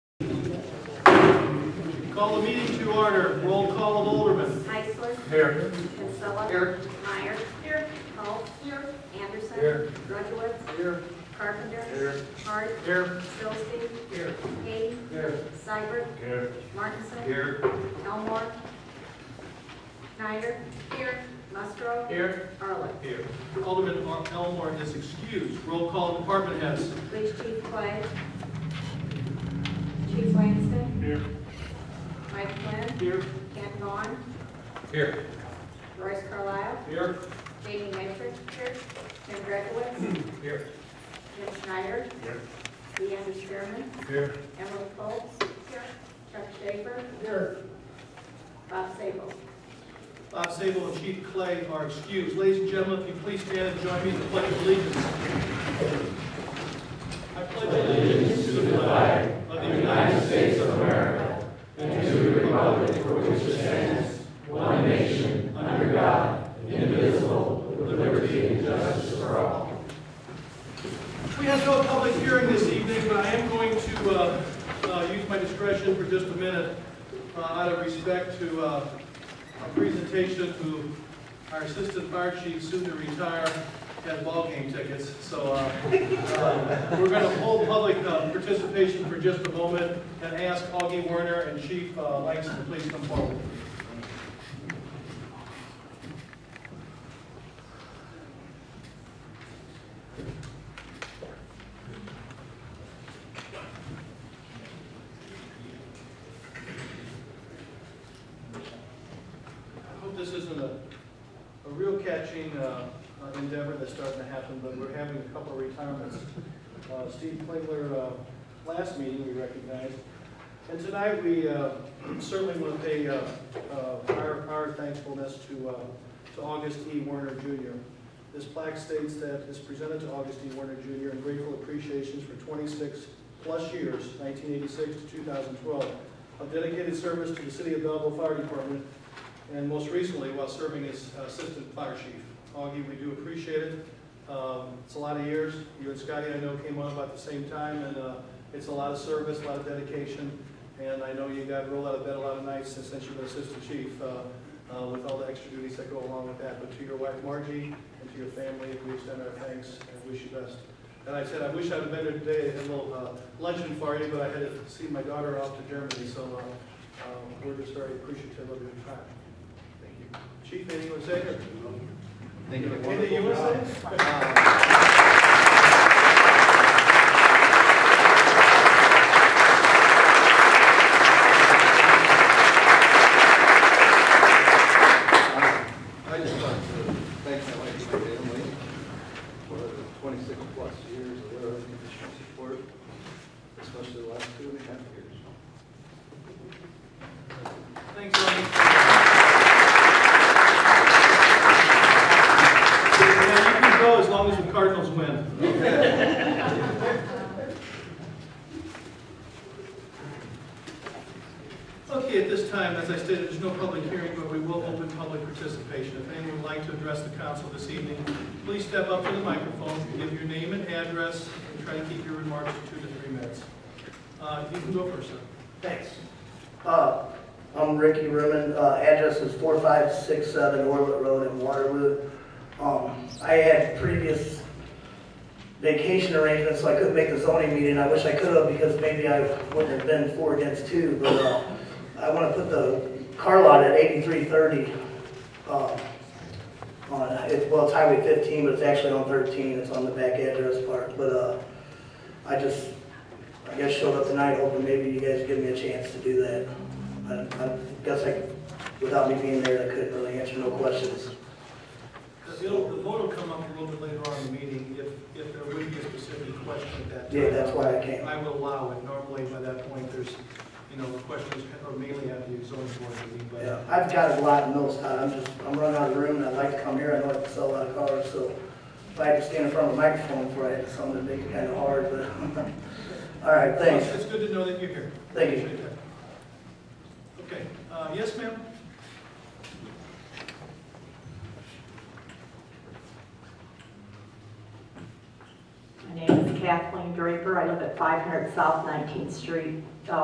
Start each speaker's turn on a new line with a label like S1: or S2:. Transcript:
S1: Call the meeting to order. Roll call of Alderman.
S2: Heisler.
S1: Here.
S2: Kinsella. Here. Meyer. Here. Holt. Here. Anderson. Here. Rudowitz.
S1: Here.
S2: Carpenter.
S1: Here.
S2: Hart.
S1: Here.
S2: Stillstein.
S1: Here.
S2: Hayden.
S1: Here.
S2: Seibert.
S1: Here.
S2: Martinson.
S1: Here.
S2: Elmore. Snyder. Here. Musgrove.
S1: Here.
S2: Arlen.
S1: Here. Alderman Mar- Elmore is excused. Roll call of department heads.
S2: Police Chief Clay. Chief Langston.
S1: Here.
S2: Mike Flynn.
S1: Here.
S2: Ken Vaughn.
S1: Here.
S2: Royce Carlisle.
S1: Here.
S2: Jamie Metrick. Here. Tim Redowitz.
S1: Here.
S2: Jim Schneider.
S1: Here.
S2: Leander Spearman.
S1: Here.
S2: Emily Colts. Here. Chuck Schaefer.
S1: Here.
S2: Bob Sable.
S1: Bob Sable and Chief Clay are excused. Ladies and gentlemen, if you please stand and join me in the pledge of allegiance. I pledge allegiance to the flag of the United States of America and to the republic for which it stands, one nation, under God, indivisible, with liberty and justice for all. We have no public hearing this evening, but I am going to uh, uh, use my discretion for just a minute uh, out of respect to uh, a presentation who our assistant fire chief, soon to retire, had ballgame tickets. So uh, uh, we're going to hold public uh, participation for just a moment and ask Augie Werner and Chief uh, Langston to please come forward. I hope this isn't a, a real catching uh, uh, endeavor that's starting to happen, but we're having a couple of retirements. Uh, Steve Klingler, uh, last meeting we recognized, and tonight we uh, certainly want to pay uh, uh, our, our thankfulness to, uh, to August E. Werner Jr. This plaque states that it's presented to August E. Werner Jr. in grateful appreciation for 26-plus years, 1986 to 2012, of dedicated service to the City of Belleville Fire Department and most recently while serving as Assistant Fire Chief. Augie, we do appreciate it. Um, It's a lot of years. You and Scotty, I know, came on about the same time, and uh, it's a lot of service, a lot of dedication, and I know you got rolled out of bed a lot of nights since since you've been Assistant Chief uh, uh, with all the extra duties that go along with that. But to your wife Margie and to your family, we extend our thanks and wish you best. And I said, I wish I'd have been there today, had a little uh, luncheon for you, but I had to see my daughter off to Germany, so uh, um, we're just very appreciative of your time. Thank you. Chief, anything you want to say? or-
S3: Thank you.
S1: Anything you want to say?
S3: I just want to thank my wife and my family for the twenty-six plus years of their unconditional support, especially the last two and a half years.
S1: Thanks, Ronnie. Yeah, you can go as long as the Cardinals win. Okay, at this time, as I stated, there's no public hearing, but we will open public participation. If anyone would like to address the council this evening, please step up to the microphone, give your name and address, and try to keep your remarks to two to three minutes. Uh, You can go first, sir.
S4: Thanks. Uh, I'm Ricky Ruman, Uh, address is 4567 Orlet Road in Waterloo. Um, I had previous vacation arrangements, so I couldn't make the zoning meeting. I wish I could have because maybe I wouldn't have been for or against two, but uh, I want to put the car lot at 8330. uh, on- it's- Well, it's Highway 15, but it's actually on 13, it's on the back address part. But uh, I just I guess showed up tonight hoping maybe you guys give me a chance to do that. I, I guess I, without me being there, I couldn't really answer no questions.
S1: It'll, the vote will come up a little bit later on in the meeting, if, if there would be a specific question at that time.
S4: Yeah, that's why I came.
S1: I would allow it, normally by that point, there's, you know, questions are mainly at the zoning board meeting,
S4: Yeah,
S1: but.
S4: I've got a lot of notes, Todd, I'm just, I'm running out of room and I'd like to come here, I know I can sell a lot of cars, so if I had to stand in front of a microphone before I had something to make it kind of hard, but, all right, thanks.
S1: It's good to know that you're here.
S4: Thank you.
S1: Appreciate that. Okay, uh, yes, ma'am?
S5: My name is Kathleen Draper. I live at 500 South 19th Street, uh,